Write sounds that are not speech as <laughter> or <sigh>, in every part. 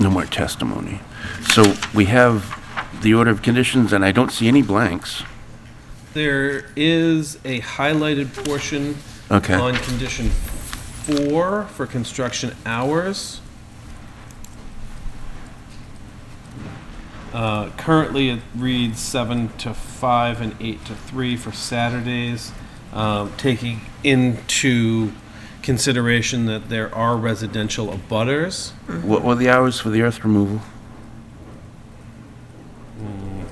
No more testimony. So we have the order of conditions, and I don't see any blanks. There is a highlighted portion Okay. on condition four for construction hours. Uh, Currently, it reads seven to five and eight to three for Saturdays, um, taking into consideration that there are residential abutters. What were the hours for the earth removal?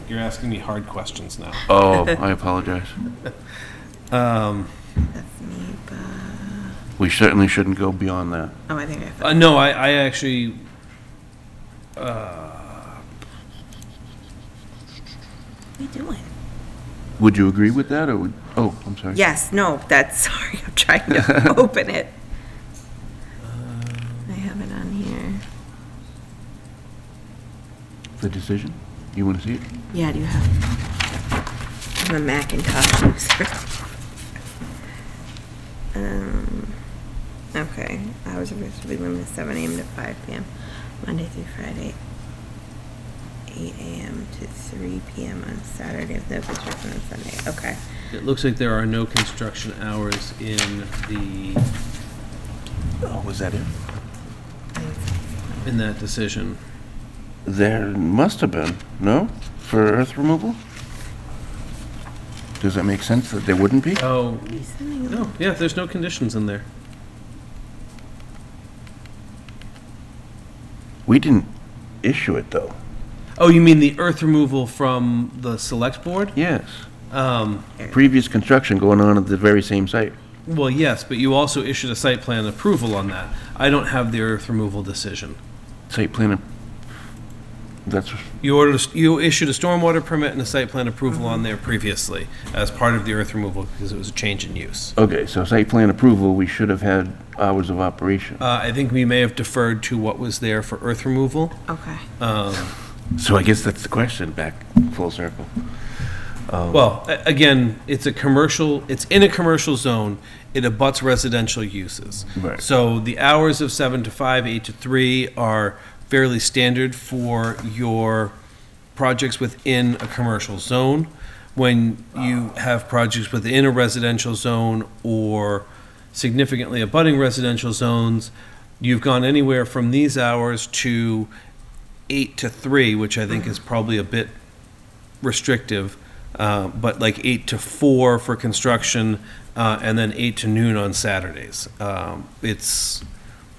You're asking me hard questions now. Oh, I apologize. That's me, but We certainly shouldn't go beyond that. oh, I think I Uh, no, I, I actually. Uh, What are you doing? Would you agree with that, or would, oh, I'm sorry. Yes, no, that's <laughs> sorry. I'm trying <laughs> to open it. uh, I have it on here. The decision? You want to see it? Yeah, do you have? I'm a Macintosh user. <laughs> um, okay, hours of business will be limited to 7 a.m. to 5 p.m. Monday through Friday, 8 a.m. to 3 p.m. on Saturday with no construction on Sunday. Okay. It looks like there are no construction hours in the, Oh, was that it? in that decision. There must have been, no? For earth removal? Does that make sense that there wouldn't be? Oh, What are you sending? no, yeah, there's no conditions in there. We didn't issue it, though. Oh, you mean the earth removal from the select board? Yes. Um, Previous construction going on at the very same site. well, yes, but you also issued a site plan approval on that. I don't have the earth removal decision. Site plan, ap- that's, You ordered, a- you issued a stormwater permit and a site plan approval on there previously as part of the earth removal because it was a change in use. okay, so site plan approval, we should have had hours of operation. Uh, I think we may have deferred to what was there for earth removal. Okay. So I guess that's the question, back full circle. Well, a- again, it's a commercial, it's in a commercial zone, it abuts residential uses. Right. So the hours of seven to five, eight to three are fairly standard for your projects within a commercial zone. When you have projects within a residential zone or significantly abutting residential zones, you've gone anywhere from these hours to eight to three, which I think is probably a bit restrictive, uh, but like eight to four for construction, uh, and then eight to noon on Saturdays. Um, It's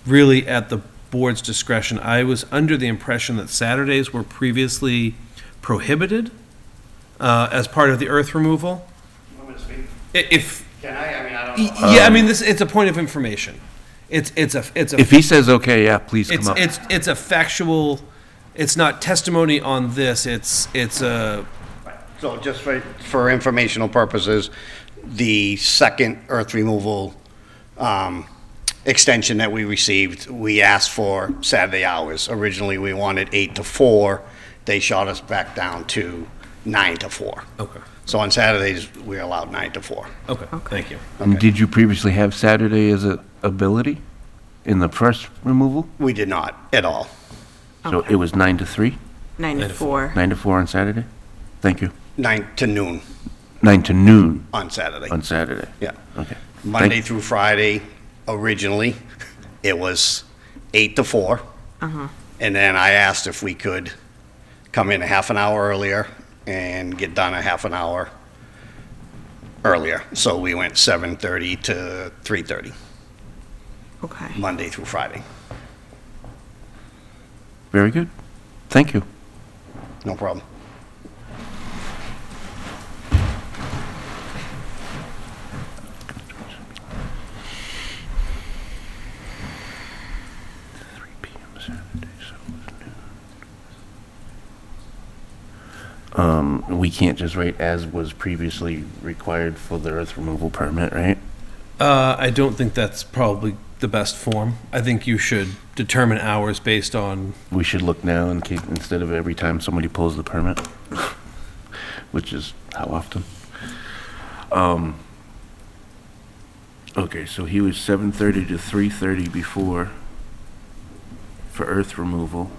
really at the board's discretion. I was under the impression that Saturdays were previously prohibited uh, as part of the earth removal. Want me to speak? I- If, Can I? I mean, I don't know. yeah, I mean, this, it's a point of information. It's, it's a, it's a. Um, If he says, okay, yeah, please come It's, up. it's, it's a factual, it's not testimony on this, it's, it's a, So just for, for informational purposes, the second earth removal um, extension that we received, we asked for Saturday hours. Originally, we wanted eight to four. They shot us back down to nine to four. okay, So on Saturdays, we're allowed nine to four. okay, thank you. And Um, did you previously have Saturday as a ability in the first removal? We did not at all. So it was nine to three, 94. nine to four on Saturday? Thank you. Nine to noon Nine to noon on Saturday. on Saturday? Yeah. Okay. Monday through Friday, originally, it was eight to four. And then I asked if we could come in a half an hour earlier and get done a half an hour earlier. So we went 7:30 to 3:30, Okay. Monday through Friday. Very good. Thank you. No problem. Three PM Saturday, so it was noon. Um, we can't just write as was previously required for the earth removal permit, right? Uh, I don't think that's probably the best form. I think you should determine hours based on, We should look now and keep, instead of every time somebody pulls the permit, <laughs> which is how often? Um, okay, so he was seven thirty to three thirty before for earth removal.